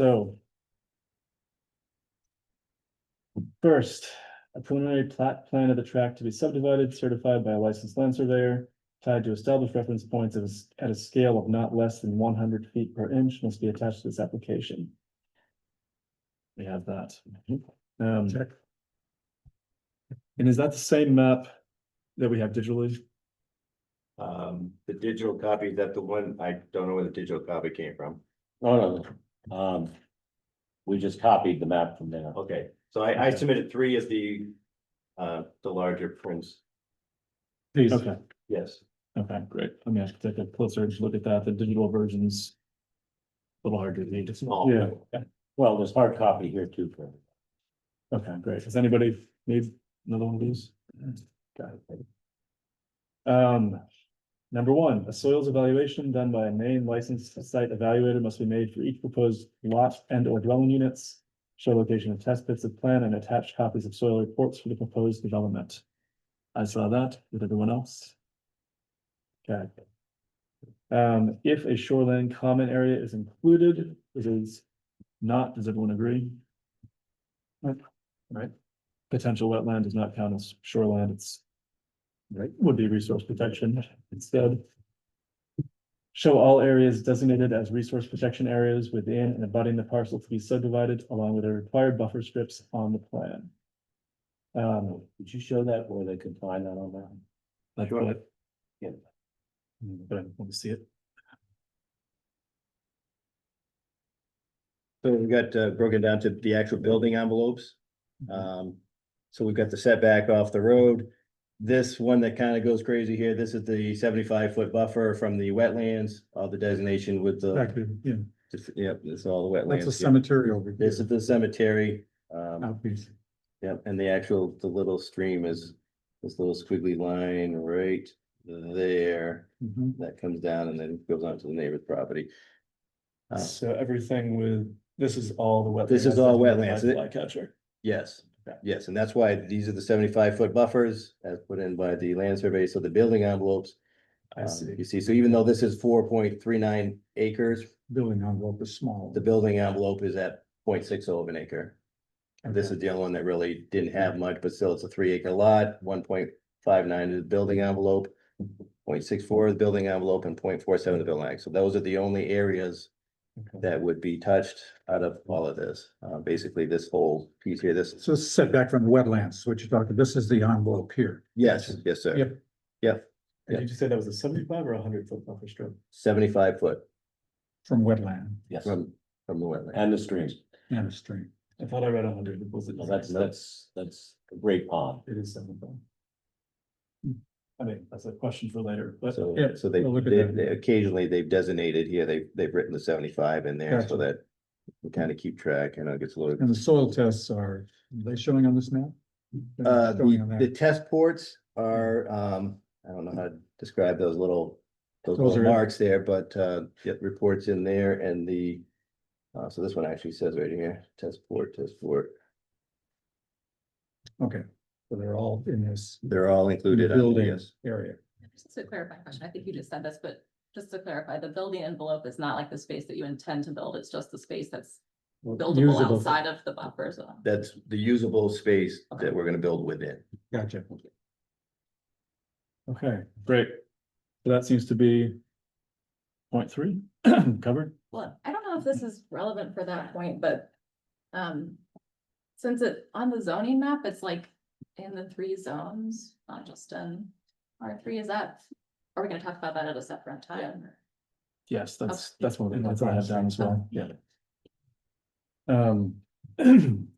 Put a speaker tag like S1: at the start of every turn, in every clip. S1: So. First, a preliminary plat plan of the tract to be subdivided certified by a licensed land surveyor. Tied to established reference points of s- at a scale of not less than one hundred feet per inch must be attached to this application. We have that. Um,
S2: Check.
S1: and is that the same map that we have digitally?
S3: Um, the digital copy, is that the one, I don't know where the digital copy came from.
S2: Oh,
S4: No, no, um, we just copied the map from there.
S3: Okay, so I, I submitted three as the, uh, the larger prints,
S2: These,
S1: Okay,
S3: yes.
S1: okay, great. I mean, I should take a closer look at that. The digital version's a little harder to read.
S3: Small.
S1: Yeah.
S4: Well, there's hard copy here too. for-
S1: Okay, great. Does anybody need another one of these? Got it. Um, number one, a soils evaluation done by a main licensed site evaluator must be made for each proposed lot and or dwelling units. Show location of test pits of plan and attached copies of soil reports for the proposed development. I saw that with everyone else. Okay. Um, if a shoreline common area is included, this is not, does everyone agree? potential wetland does not count as shoreland. it's. Right, would be resource protection instead. Show all areas designated as resource protection areas within and abutting the parcel to be subdivided along with the required buffer strips on the plan. Um,
S4: Did you show that where they could find that on that?
S1: like
S3: Sure.
S1: what?
S4: Yeah.
S1: Hmm, But I want to see it.
S3: So we've got uh, broken down to the actual building envelopes.
S4: Mm-hmm.
S3: Um, so we've got the setback off the road. This one that kind of goes crazy here, this is the seventy-five foot buffer from the wetlands, all the designation with the,
S2: exactly, yeah,
S3: yep, this is all the
S2: that's a
S3: wetlands. here.
S2: cemetery Oh. over here.
S3: This is the cemetery, um,
S2: Out piece.
S3: yep, and the actual, the little stream is this little squiggly line right there.
S2: Mhm.
S3: That comes down and then goes on to the neighbor's property. Uh,
S1: So everything with, this is all the wetlands.
S3: This is all wetlands.
S1: Catcher.
S3: Yes,
S1: Okay.
S3: yes, and that's why these are the seventy-five foot buffers as put in by the land survey, so the building envelopes.
S1: I
S3: um,
S1: see.
S3: You see, so even though this is four point three nine acres,
S2: Building envelope is small.
S3: the building envelope is at 0.60 of an acre. And this
S2: Okay.
S3: is the only one that really didn't have much, but still it's a three acre lot, one point five nine is the building envelope. 0.64 is the building envelope and 0.47 the building, act. so those are the only areas
S1: Okay.
S3: that would be touched out of all of this. Uh, basically, this whole piece here, this
S2: So it's setback from the wetlands, what you're talking, this is the envelope here.
S3: Yes, yes, sir.
S2: Yep.
S1: And Did you say that was a seventy-five or a hundred foot buffer strip?
S3: Seventy-five foot
S2: From wetland
S4: Yes,
S3: from, from the wetland.
S4: and the stream.
S2: and a stream.
S1: I thought I read a hundred. Was it?
S4: No, that's, that's, that's a great pond.
S1: It is seventy-five. I mean, that's a question for later, but
S3: So,
S2: yeah,
S3: so they,
S2: we'll look at
S3: they-
S2: that.
S3: they- occasionally they've designated here, they, they've written the seventy-five in there so that we kind of keep track, you know, it gets loaded.
S2: And the soil tests are, are they showing on this map? They're not
S3: Uh,
S2: showing Hmm, on Hmm.
S3: the,
S2: that.
S3: the test ports are, um, I don't know how to describe those little, those
S2: Those
S3: little
S2: are-
S3: marks there, but, uh, get reports in there and the, uh, so this one actually says right here, test port, test port,
S2: Okay, so they're all in this
S3: they're all included. on
S2: building
S3: there, yes.
S2: area.
S5: Just a clarifying question. I think you just said this, but just to clarify, the building envelope is not like the space that you intend to build. It's just the space that's buildable
S2: Usable.
S5: outside of the buffer zone.
S3: That's the usable space that we're gonna build within.
S2: Gotcha.
S1: Okay, great. So that seems to be point three covered.
S5: Well, I don't know if this is relevant for that point, but um, since it, on the zoning map, it's like in the three zones, not just in R three, is that, are we gonna talk about that at a separate time? or-
S1: Yes, that's,
S5: Okay.
S1: that's one of the ones I have down as well.
S5: Yeah.
S1: Um.
S2: Okay.
S1: Um,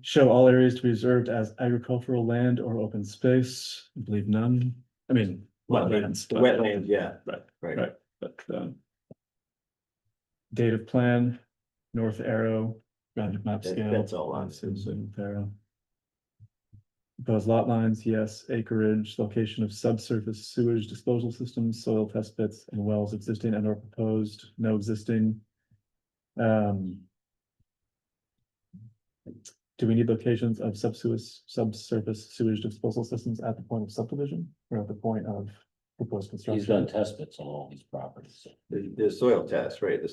S1: Show all areas to be reserved as agricultural land or open space. I believe none. I mean, wetlands. but-
S3: Wetlands, yeah.
S1: Right.
S3: Right.
S1: Right. But, um. Date of plan, north arrow, ground map
S3: That-
S1: scale.
S3: that's all on it.
S1: Susan Farrow. Those lot lines, yes, acreage, location of subsurface sewage disposal systems, soil test pits and wells existing and or proposed, no existing. Um. Do we need locations of subsurface, subsurface sewage disposal systems at the point of subdivision or at the point of
S6: proposed construction.
S7: He's done test pits on all these properties.
S3: The, the soil test, right, the